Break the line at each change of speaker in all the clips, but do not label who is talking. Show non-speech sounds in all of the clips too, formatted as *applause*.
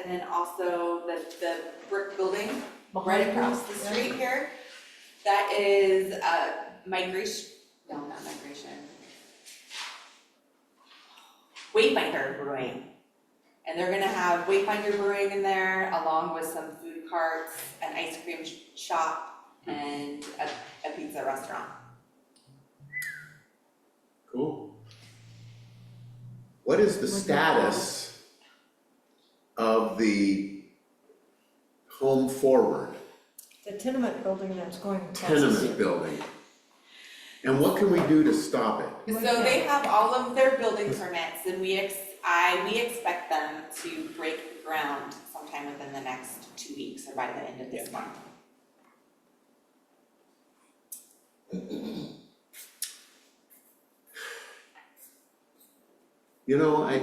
and then also the, the brick building right across the street here. That is, uh, migration, no, not migration. Wayfinder Brewing. And they're gonna have Wayfinder Brewing in there along with some food carts, an ice cream sh- shop and a, a pizza restaurant.
Cool.
What is the
Like the
status of the Home Forward
The tenement building that's going across. the
tenement
street.
building? And what can we do to stop it?
So
Like
they
that.
have all of their building permits and we ex, I, we expect them to break ground sometime within the next two weeks or by the end of this month.
You know, I,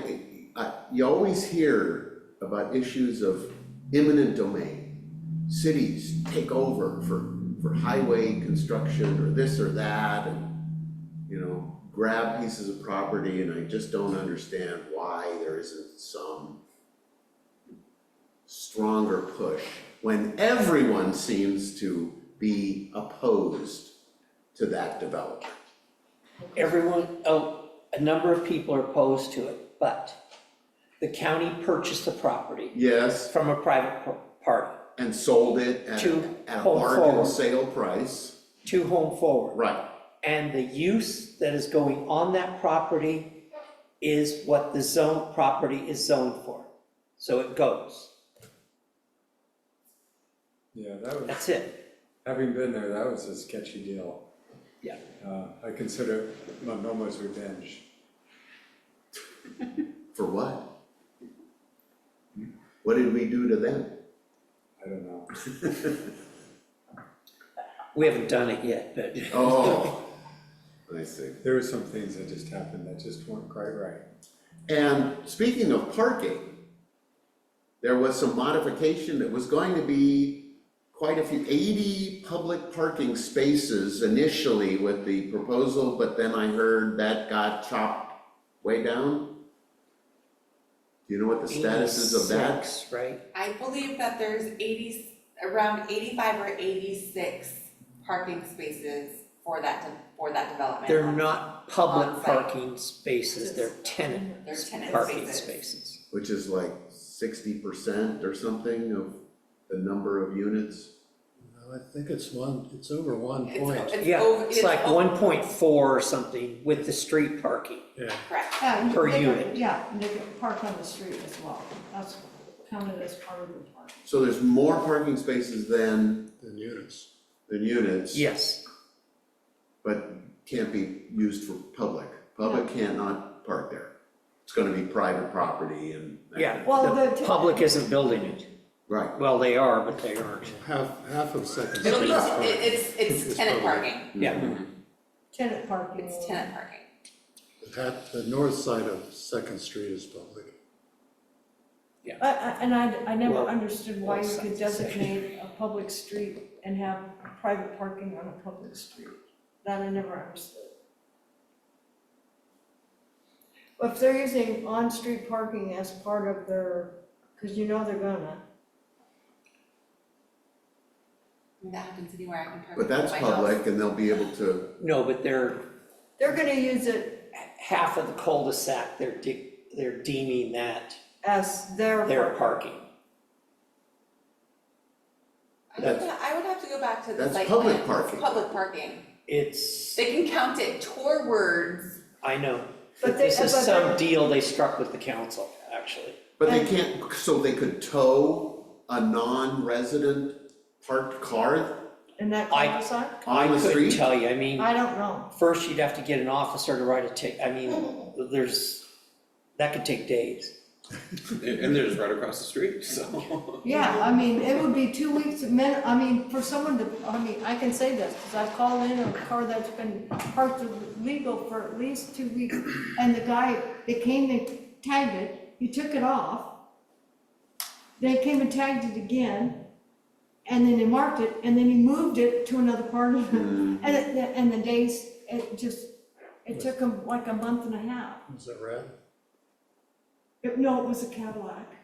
I, you always hear about issues of eminent domain. Cities take over for, for highway construction or this or that and, you know, grab pieces of property and I just don't understand why there isn't some stronger push when everyone seems to be opposed to that development.
Everyone, oh, a number of people are opposed to it, but the county purchased the property
Yes,
from a private par- party
and sold it at,
To
at a
hold
bargain
forward.
sale price.
to Home Forward.
Right.
And the use that is going on that property is what the zone, property is zoned for. So it goes,
Yeah, that was,
that's it.
having been there, that was a sketchy deal.
Yeah.
Uh, I consider it Momo's revenge.
For what? What did we do to them?
I don't know.
We haven't done it yet, but.
Oh, I see.
There were some things that just happened that just weren't quite right.
And speaking of parking, there was some modification that was going to be quite a few, eighty public parking spaces initially with the proposal, but then I heard that got chopped way down. Do you know what the *laughs* status is of that?
86, Right,
I believe that there's eighty, around eighty-five or eighty-six parking spaces for that, de- for that development.
they're not public
On-site.
parking spaces, they're tenant
They're tenant
parking
spaces.
spaces.
which is like sixty percent or something of the number of units.
Well, I think it's one, it's over one
It's,
point,
it's
Yeah,
over,
it's like one point four or something with the street parking.
yeah.
Correct.
Yeah, and
Per
they can-
unit.
Yeah, and they can park on the street as well. That's counted as part of the park.
So there's more parking spaces than,
The units.
than units.
Yes,
But can't be used for public. Public cannot park there. It's gonna be private property and. that
yeah.
kind of-
Well,
the
the-
Public isn't building it.
Right,
Well, they are, but they aren't.
Half, half of Second
It'll
Street
be,
is
it-
parking.
it's, it's
It's
tenant
probably-
parking,
Yeah,
Tenant parking.
it's tenant parking.
Half- the north side of Second Street is public.
I- I- And I, I never
Well,
understood why you
both
could
sides.
designate a public street and have private parking on a public street. That I never understood. If they're using on-street parking as part of their, because you know they're gonna.
I mean, that happens anywhere I can park.
but that's
my house.
public and they'll be able to,
no, but they're,
They're gonna use it
half of the cul-de-sac, they're de- they're deeming that
as their.
their
park-
parking.
I would,
That's-
ha- I would have to go back to the
That's
site plan.
public
It's
parking.
Public parking.
It's,
They can count it towards,
I know,
But they-
this is
but
some
they're-
deal they struck with the council, actually.
but they
And-
can't, so they could tow a non-resident parked car
In that
I-
cul-de-sac?
I
on the
couldn't
street?
tell you, I mean,
I don't know.
first you'd have to get an officer to write a tick, I mean, there's, that could take days.
And, and they're just right across the street, so.
Yeah, I mean, it would be two weeks, of min, I mean, for someone to, I mean, I can say this, because I've called in a car that's been parked legal for at least two weeks, and the guy, they came and tagged it, he took it off. They came and tagged it again, and then they marked it, and then he moved it to another part of it. And, it- and the days, it just, it took him like a month and a half.
Is that right?
It- No, it was a Cadillac.